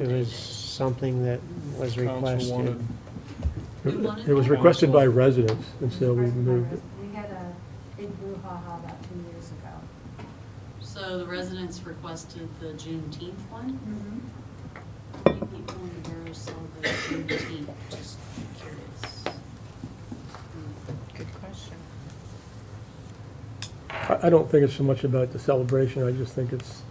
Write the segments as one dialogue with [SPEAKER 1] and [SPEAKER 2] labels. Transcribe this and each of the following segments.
[SPEAKER 1] It was something that was
[SPEAKER 2] Council
[SPEAKER 1] requested.
[SPEAKER 2] wanted,
[SPEAKER 1] You wanted
[SPEAKER 3] It was
[SPEAKER 1] that?
[SPEAKER 3] requested by residents, and so we
[SPEAKER 4] Request by
[SPEAKER 3] moved it.
[SPEAKER 4] res- We had a big brouhaha about two years ago.
[SPEAKER 1] So the residents requested the Juneteenth one.
[SPEAKER 5] Mm-hmm.
[SPEAKER 1] How many people in the borough celebrate Juneteenth? Just curious.
[SPEAKER 6] Good question.
[SPEAKER 3] I, I don't think it's so much about the celebration, I just think it's,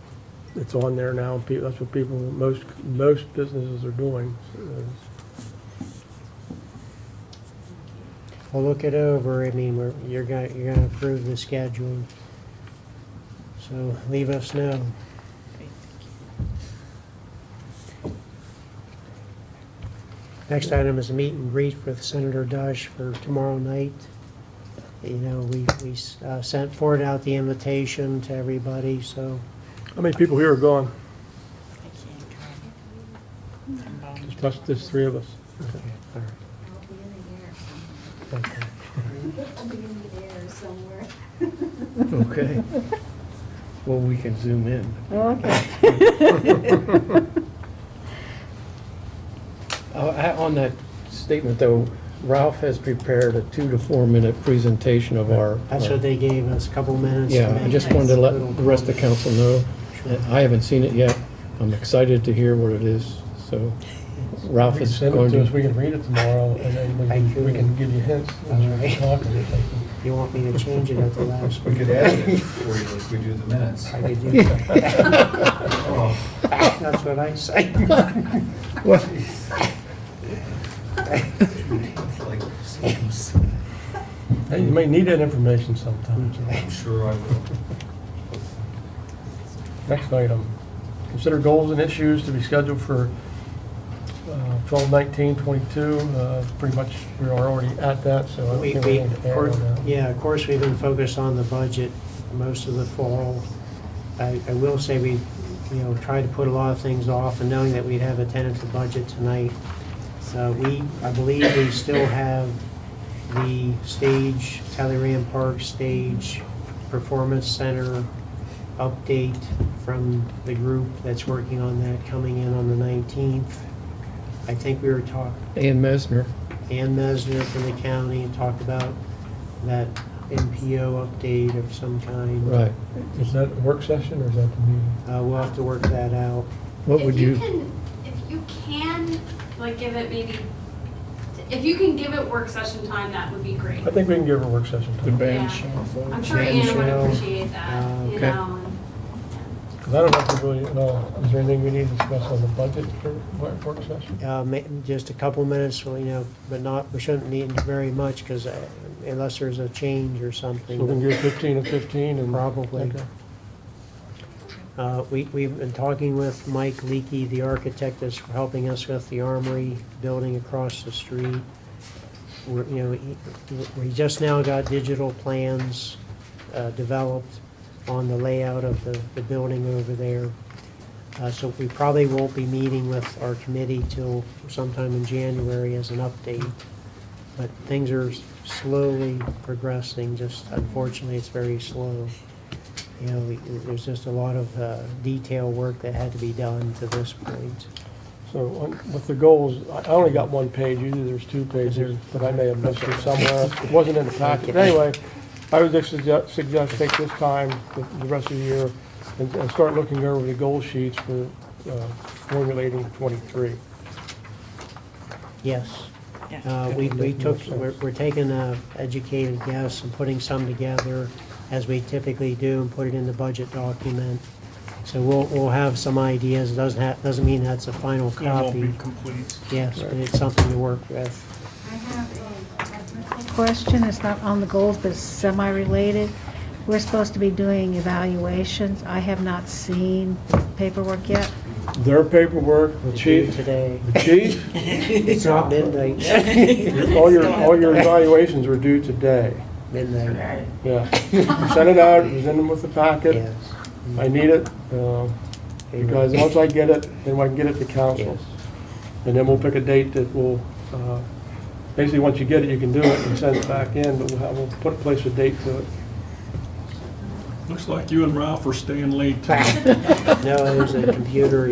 [SPEAKER 3] it's on there now, and peo- that's what people, most, most businesses are doing. Uh, so-
[SPEAKER 1] We'll look it over. I mean, we're, you're gonna, you're gonna approve the schedule. So leave us know. Next item is a meet and greet with Senator Dush for tomorrow night. You know, we, we uh, sent forward out the invitation to everybody, so
[SPEAKER 3] How many people here are gone?
[SPEAKER 6] I can't come.
[SPEAKER 3] It's just this three of us.
[SPEAKER 1] Okay, all right,
[SPEAKER 4] I'll be in the air
[SPEAKER 1] thank you.
[SPEAKER 4] somewhere. I'll be in the air somewhere.
[SPEAKER 7] Okay. Well, we can zoom in.
[SPEAKER 6] Okay.
[SPEAKER 7] Uh, I- On that statement, though, Ralph has prepared a two to four-minute presentation of our...
[SPEAKER 1] That's what they gave us, a couple minutes. to
[SPEAKER 7] Yeah, I
[SPEAKER 1] make
[SPEAKER 7] just
[SPEAKER 1] it.
[SPEAKER 7] wanted to let the rest of council know. Uh, I haven't seen it yet. I'm excited to hear what it is, so Ralph is
[SPEAKER 3] Send it
[SPEAKER 7] going
[SPEAKER 3] to us, we
[SPEAKER 7] to...
[SPEAKER 3] can read it tomorrow, and then we
[SPEAKER 1] Thank you.
[SPEAKER 3] can, we can give you hints.
[SPEAKER 1] All
[SPEAKER 3] as we
[SPEAKER 1] right.
[SPEAKER 3] talk.
[SPEAKER 1] You want me to change it at the last?
[SPEAKER 8] We could edit it for you like we do the minutes.
[SPEAKER 1] I could do that.
[SPEAKER 8] Oh,
[SPEAKER 1] That's what I say.
[SPEAKER 7] What?
[SPEAKER 8] like, seems-
[SPEAKER 3] Hey, You may need that information sometime.
[SPEAKER 8] I'm sure I will.
[SPEAKER 3] Next item, consider goals and issues to be scheduled for uh, 12/19/22. Uh, Pretty much, we are already at that, so I don't
[SPEAKER 1] We,
[SPEAKER 3] think
[SPEAKER 1] we,
[SPEAKER 3] we need to add
[SPEAKER 1] cour-
[SPEAKER 3] on that.
[SPEAKER 1] yeah, of course, we've been focused on the budget most of the fall. I, I will say we, you know, tried to put a lot of things off and knowing that we'd have a tentative budget tonight. So we, I believe we still have the stage, Talleyrand Park Stage Performance Center update from the group that's working on that coming in on the nineteenth. I think we were talking,
[SPEAKER 7] Ann Mesner.
[SPEAKER 1] Ann Mesner from the county and talked about that NPO update of some kind.
[SPEAKER 7] Right.
[SPEAKER 3] Is that a work session or is that the meeting?
[SPEAKER 1] Uh, we'll have to work that out.
[SPEAKER 7] What would you...
[SPEAKER 9] If you can, if you can, like, give it maybe, if you can give it work session time, that would be great.
[SPEAKER 3] I think we can give her a work session
[SPEAKER 9] Yeah.
[SPEAKER 3] time,
[SPEAKER 9] I'm sure
[SPEAKER 7] Shannon
[SPEAKER 9] Anna would
[SPEAKER 1] Shell.
[SPEAKER 9] appreciate that,
[SPEAKER 1] Uh,
[SPEAKER 9] you
[SPEAKER 7] okay.
[SPEAKER 9] know. and-
[SPEAKER 3] because I don't have to really, know. is there anything we need to discuss on the budget for wor- work session?
[SPEAKER 1] Uh, ma- just a couple minutes, well, you know, but not, we shouldn't need very much because unless there's a change or
[SPEAKER 3] So we can
[SPEAKER 1] something.
[SPEAKER 3] give 15 and 15 and...
[SPEAKER 1] Probably.
[SPEAKER 3] Okay.
[SPEAKER 1] Uh, we, we've been talking with Mike Leakey, the architect that's helping us with the armory building across the street. We're, you know, he- we just now got digital plans uh, developed on the layout of the, the building over there. Uh, So we probably won't be meeting with our committee till sometime in January as an update. But things are slowly progressing, just unfortunately, it's very slow. You know, we- there's just a lot of uh, detail work that had to be done to this point.
[SPEAKER 3] So on- with the goals, I I only got one page, usually there's two pages, but I may have missed it somewhere. It wasn't in the packet. Anyway, I would just suggest, suggest take this time, the the rest of the year, and and start looking over the goal sheets for uh, formulating '23.
[SPEAKER 1] Yes.
[SPEAKER 6] Yeah.
[SPEAKER 1] Uh, We, we took, we're, we're taking a educated guess and putting some together as we typically do and put it in the budget document. So we'll, we'll have some ideas, It doesn't have, doesn't mean that's a final
[SPEAKER 2] it won't be
[SPEAKER 1] copy.
[SPEAKER 2] complete.
[SPEAKER 1] Yes, but it's something to work with.
[SPEAKER 4] I have a technical
[SPEAKER 5] question, it's not on the goals, but it's semi-related. We're supposed to be doing evaluations. I have not seen paperwork yet.
[SPEAKER 3] Their paperwork, the
[SPEAKER 1] We'll do
[SPEAKER 3] chief,
[SPEAKER 1] Today.
[SPEAKER 3] the chief,
[SPEAKER 1] It's not midnight,
[SPEAKER 3] all your, all your evaluations are due today.
[SPEAKER 1] midnight,
[SPEAKER 3] Yeah. Send it out, send them with the packet.
[SPEAKER 1] yes.
[SPEAKER 3] I need it, uh, because once I get it, then I can get it to council.
[SPEAKER 1] Yes.
[SPEAKER 3] And then we'll pick a date that will, uh, basically, once you get it, you can do it and send it back in, but we'll have, we'll put, place a date to it.
[SPEAKER 2] Looks like you and Ralph are staying late tonight.
[SPEAKER 1] No, it was a computer